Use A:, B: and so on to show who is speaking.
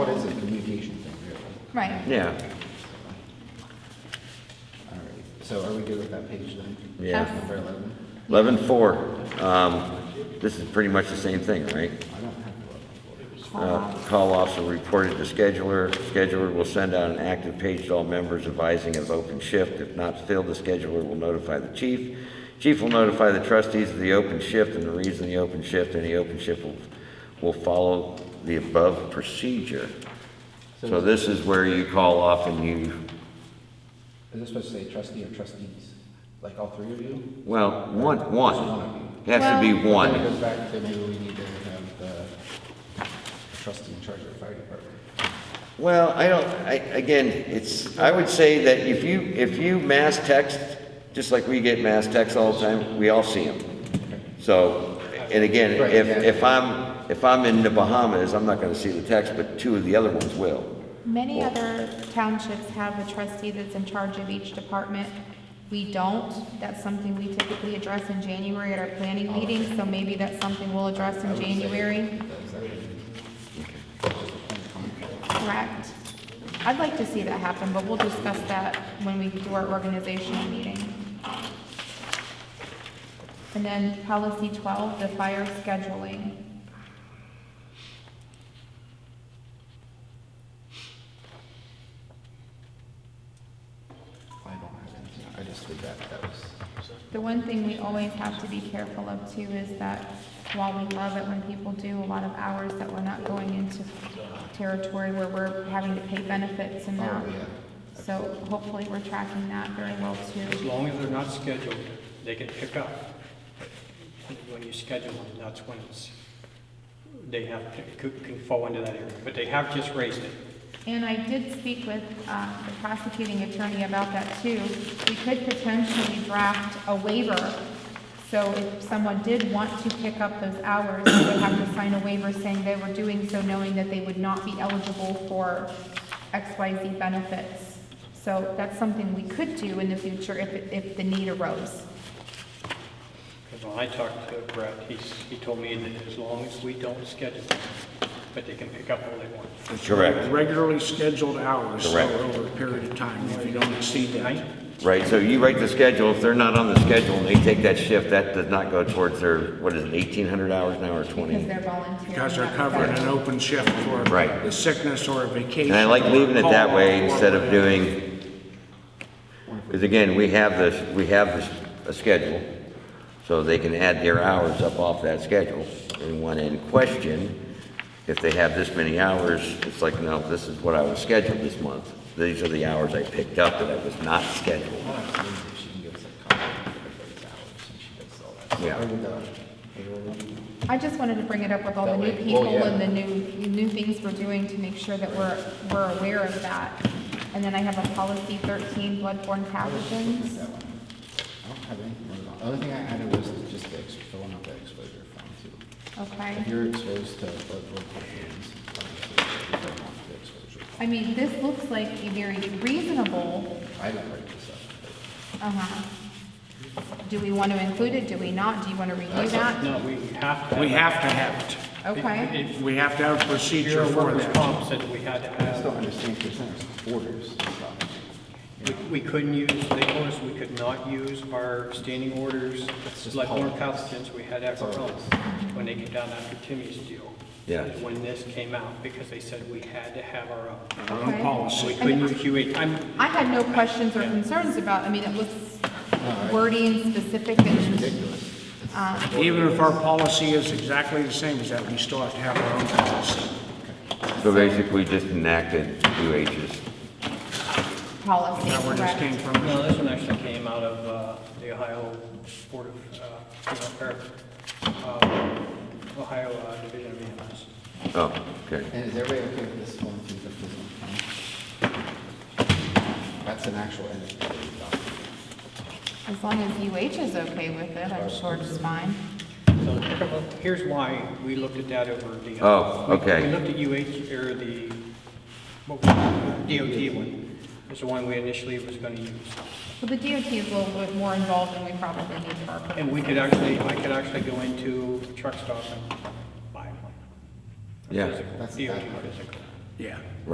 A: Right.
B: Yeah,
C: All right, so are we good with that page then?
B: Yeah. Yes.
C: Number eleven?
B: eleven four, um, this is pretty much the same thing, right?
C: I don't have eleven.
B: Uh, Call officer reported to scheduler. Scheduler will send out an active page to all members advising of open shift. If not filled, the scheduler will notify the chief. Chief will notify the trustees of the open shift and the reason the open shift, and the open shift will, will follow the above procedure. So this is where you call off and you,
C: Is this supposed to say trustee or trustees? Like all three of you?
B: well, one, one. It has to be
A: Well-
C: Then it
B: one.
C: goes back to maybe we need to have the trustee in charge of the fire department.
B: Well, I don't, I, again, it's, I would say that if you, if you mass text, just like we get mass texts all the time, we all see them. So, and again,
C: Right,
B: if,
C: yeah.
B: if I'm, if I'm in the Bahamas, I'm not gonna see the text, but two of the other ones will.
A: Many other townships have a trustee that's in charge of each department. We don't. That's something we typically address in January at our planning meeting, so maybe that's something we'll address in January. Correct. I'd like to see that happen, but we'll discuss that when we do our organizational meeting. And then policy twelve, the fire scheduling.
C: I don't have anything, I just did that, that was,
A: The one thing we always have to be careful of too is that while we love it when people do a lot of hours, that we're not going into territory where we're having to pay benefits and that.
C: Oh, yeah.
A: So hopefully we're tracking that very well
D: As
A: too.
D: long as they're not scheduled, they can pick up. When you schedule them, that's when it's, they have, could- can fall into that area, but they have just raised it.
A: And I did speak with, uh, the prosecuting attorney about that too. We could potentially draft a waiver. So if someone did want to pick up those hours, they would have to sign a waiver saying they were doing so knowing that they would not be eligible for XYZ benefits. So that's something we could do in the future if, it- if the need arose.
D: Because when I talked to Brett, he's, he told me that as long as we don't schedule them, but they can pick up all they want.
B: Correct.
E: Regularly scheduled hours so
B: Correct.
E: over a period of time, if you don't exceed that.
D: Right?
B: Right, so you write the schedule, if they're not on the schedule and they take that shift, that does not go towards their, what is it, eighteen hundred hours now or
A: Because
B: twenty?
A: they're volunteering.
E: Because they're covering an open shift for
B: Right.
E: a sickness or a vacation.
B: And I like
E: or a
B: leaving it that
E: call
B: way
E: or
B: instead of
E: whatever.
B: doing, because again, we have this, we have this, a schedule, so they can add their hours up off that schedule. And when in question, if they have this many hours, it's like, no, this is what I was scheduled this month. These are the hours I picked up that I was not scheduled.
C: I don't know if she can give us a copy of everybody's hours and she does all that. So
B: Yeah.
C: Are we done? Payroll meeting?
A: I just wanted to bring it up with all the
C: That
A: new
C: way- oh,
A: people
C: yeah.
A: and the new, new things we're doing to make sure that we're, we're aware of that. And then I have a policy thirteen, bloodborne pathogens.
C: That one. I don't have anything. written on- The only thing I added was just the, ex- filling out the exposure form too. If
A: Okay.
C: you're exposed to bloodborne pathogens, obviously, you don't want the exposure.
A: I mean, this looks like a very reasonable,
C: I didn't write this up.
A: uh-huh. Do we want to include it? Do we not? Do you want to review that?
D: No, we have to.
E: We have to have
A: Okay.
E: it. We have to have a procedure
D: Your
E: for
D: workers'
E: that.
D: comp said we had to
C: but I still
D: have,
C: understand percent orders and stuff.
D: we- we couldn't use, they told us we could not use our standing orders,
C: just
D: like more
C: politics.
D: pathogens, we had after
C: That's all it
D: Rome, when they came down after Timmy's deal.
B: Yeah.
D: is When this came out, because they said we had to have our own.
E: Our own
A: Okay.
D: We
E: policy.
D: couldn't use QE. I'm,
A: I had no questions or concerns about, I mean, it looks wordy and specific and,
E: Even if our policy is exactly the same as that, we still have to have our own policy.
B: So basically, just enacted UH's.
A: policy,
E: Now, where this came
A: correct?
E: from,
D: no, this one actually came out of uh, the Ohio Board of, uh, you know, or, uh, Ohio uh, Division of EMS.
B: Oh, okay.
C: And is everybody okay with this one through fifty one? That's an actual end of the document.
A: As long as UH is okay with it, I'm sure it's fine.
D: So here's why we looked at that over the.
B: Oh,
D: we-
B: okay.
D: We looked at UH, or the, what was it? DOT one, was the one we initially was going to use.
A: Well, the DOT is a little bit more involved than we probably need for our purposes.
D: And we could actually, I could actually go into truck stop and buy one. A
B: Yeah.
D: physical,
C: That's
D: DOT
C: that part.
D: physical.
E: yeah.